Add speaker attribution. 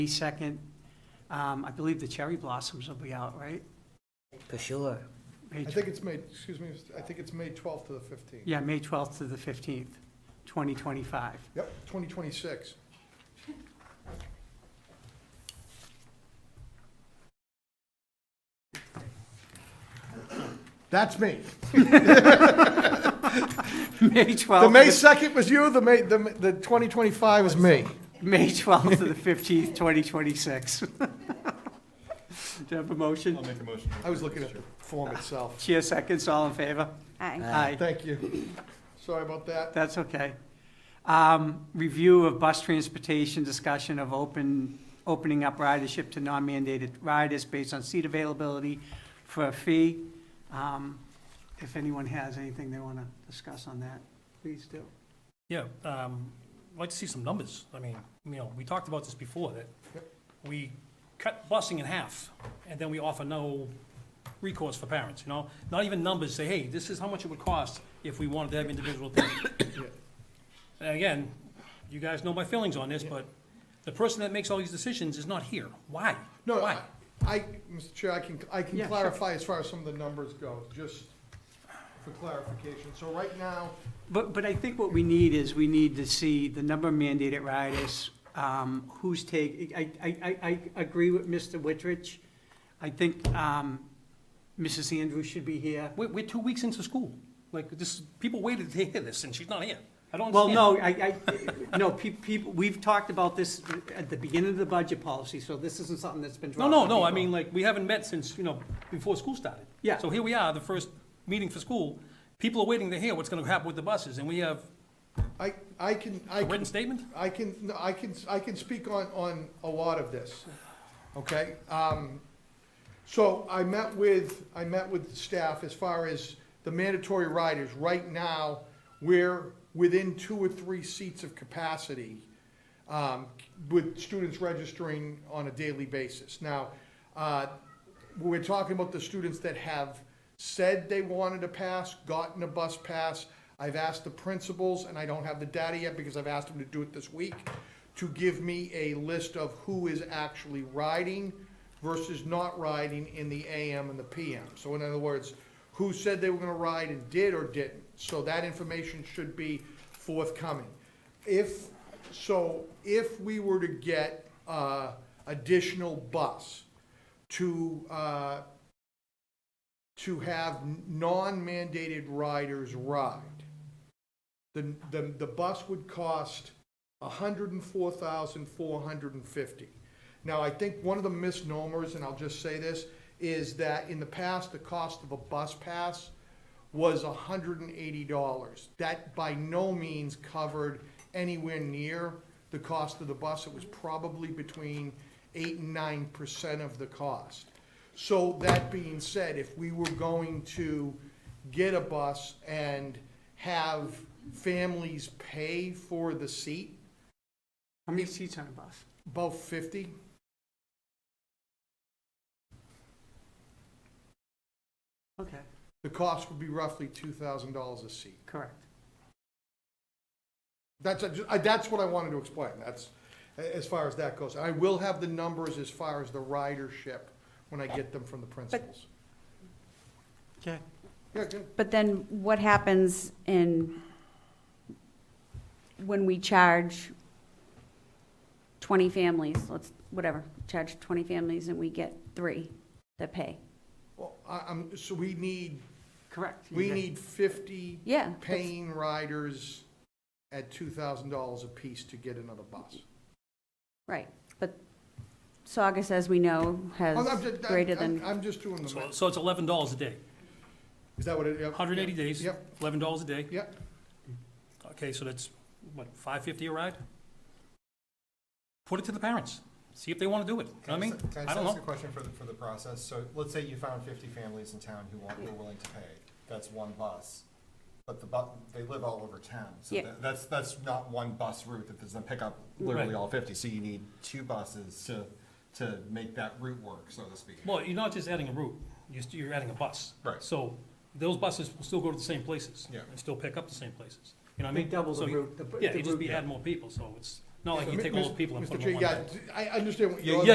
Speaker 1: Second, um, I believe the cherry blossoms will be out, right?
Speaker 2: For sure.
Speaker 1: May
Speaker 3: I
Speaker 1: tw-
Speaker 3: think it's May, excuse me, I think it's May 12th to the 15th.
Speaker 1: Yeah, May 12th to the 15th, 2025.
Speaker 3: Yep, 2026. That's me.
Speaker 1: May 12th.
Speaker 3: The May
Speaker 1: to
Speaker 3: 2nd was you, the May, the the 2025 is me.
Speaker 1: the- May 12th to the 15th, 2026. Do you have a motion?
Speaker 4: make a motion.
Speaker 3: I was looking at the form itself.
Speaker 1: Chair seconds, all in favor?
Speaker 2: Aye.
Speaker 1: Aye.
Speaker 3: Thank you. Sorry about that.
Speaker 1: That's okay. Um, Review of bus transportation, discussion of open, opening up ridership to non-mandated riders based on seat availability for a fee. Um, If anyone has anything they want to discuss on that, please do.
Speaker 5: Yeah, um, I'd like to see some numbers. I mean, you know, we talked about this before, that we cut busing in half, and then we offer no recourse for parents, you know? Not even numbers, say, hey, this is how much it would cost if we wanted to have individual things. And again, you guys know my feelings on this, but the person that makes all these decisions is not here. Why?
Speaker 3: No,
Speaker 5: Why?
Speaker 3: I- I, Mr. Chair, I can, I can
Speaker 1: Yeah, sure.
Speaker 3: clarify as far as some of the numbers go, just for clarification. So right now,
Speaker 1: But, but I think what we need is, we need to see the number of mandated riders, um, who's take, I, I, I, I agree with Mr. Wittridge. I think, um, Mrs. Andrews should be here.
Speaker 5: We're, we're two weeks into school. Like, this, people waited to hear this, and she's not here. I don't
Speaker 1: Well,
Speaker 5: understand.
Speaker 1: no, I, I, no, pe- people, we've talked about this at the beginning of the budget policy, so this isn't something that's been
Speaker 5: No,
Speaker 1: dropped.
Speaker 5: no,
Speaker 1: to
Speaker 5: no, I
Speaker 1: people.
Speaker 5: mean, like, we haven't met since, you know, before school started.
Speaker 1: Yeah.
Speaker 5: So here we are, the first meeting for school, people are waiting to hear what's gonna happen with the buses, and we have
Speaker 3: I, I can, I
Speaker 5: a
Speaker 3: can
Speaker 5: written statement?
Speaker 3: I can, no, I can, I can speak on, on a lot of this, okay? Um, So I met with, I met with staff as far as the mandatory riders. Right now, we're within two or three seats of capacity um, with students registering on a daily basis. Now, uh, we're talking about the students that have said they wanted a pass, gotten a bus pass. I've asked the principals, and I don't have the data yet because I've asked them to do it this week, to give me a list of who is actually riding versus not riding in the AM and the PM. So in other words, who said they were gonna ride and did or didn't. So that information should be forthcoming. If, so if we were to get, uh, additional bus to, uh, to have non-mandated riders ride, the, the, the bus would cost hundred and four thousand, four hundred and fifty. Now, I think one of the misnomers, and I'll just say this, is that in the past, the cost of a bus pass was hundred and eighty dollars. That by no means covered anywhere near the cost of the bus. It was probably between eight and nine percent of the cost. So that being said, if we were going to get a bus and have families pay for the seat,
Speaker 1: How many seats on a bus?
Speaker 3: about fifty,
Speaker 1: Okay,
Speaker 3: the cost would be roughly two thousand dollars a seat.
Speaker 1: correct.
Speaker 3: That's, I- that's what I wanted to explain, that's, as far as that goes. I will have the numbers as far as the ridership when I get them from the principals.
Speaker 1: Okay.
Speaker 3: Yeah, good.
Speaker 6: But then what happens in, when we charge 20 families, let's, whatever, charge 20 families and we get three that pay?
Speaker 3: Well, I, I'm, so we need,
Speaker 1: Correct. You
Speaker 3: we
Speaker 1: got-
Speaker 3: need fifty
Speaker 6: Yeah. that's-
Speaker 3: paying riders at two thousand dollars apiece to get another bus.
Speaker 6: Right, but Saugus, as we know,
Speaker 3: I'm-
Speaker 6: has
Speaker 3: Oh, I'm just-
Speaker 6: greater
Speaker 3: I'm-
Speaker 6: than,
Speaker 3: I'm just doing the
Speaker 5: So,
Speaker 3: math.
Speaker 5: so it's eleven dollars a day,
Speaker 3: Is that what it? yep,
Speaker 5: hundred and eighty days,
Speaker 3: Yep,
Speaker 5: eleven dollars a day.
Speaker 3: yep.
Speaker 5: Okay, so that's, what, five fifty a ride? Put it to the parents, see if they wanna do it, You know what I mean?
Speaker 4: Can I
Speaker 5: I
Speaker 4: just
Speaker 5: don't
Speaker 4: ask a
Speaker 5: know.
Speaker 4: question for the, for the process? So let's say you found fifty families in town who want, were willing to pay. That's one bus. But the bu, they live all over town. So
Speaker 6: Yeah.
Speaker 4: tha- that's, that's not one bus route that doesn't pick up literally
Speaker 5: Right.
Speaker 4: all fifty. So you need two buses to, to make that route work, so to speak.
Speaker 5: Well, you're not just adding a route, you're, st- you're adding a bus.
Speaker 4: Right.
Speaker 5: So those buses will still go to the same places.
Speaker 4: Yeah.
Speaker 5: And still pick up the same places, you know what I
Speaker 1: They
Speaker 5: mean?
Speaker 1: double the
Speaker 5: So you-
Speaker 1: route, the-
Speaker 5: Yeah,
Speaker 1: the
Speaker 5: you just
Speaker 1: route-
Speaker 5: be adding more people, so it's, Not like you take all those people and
Speaker 3: Mr.
Speaker 5: put them
Speaker 3: Chair,
Speaker 5: on one
Speaker 3: yeah,
Speaker 5: boat.
Speaker 3: I understand what
Speaker 4: Yeah,
Speaker 3: you're.
Speaker 5: yeah,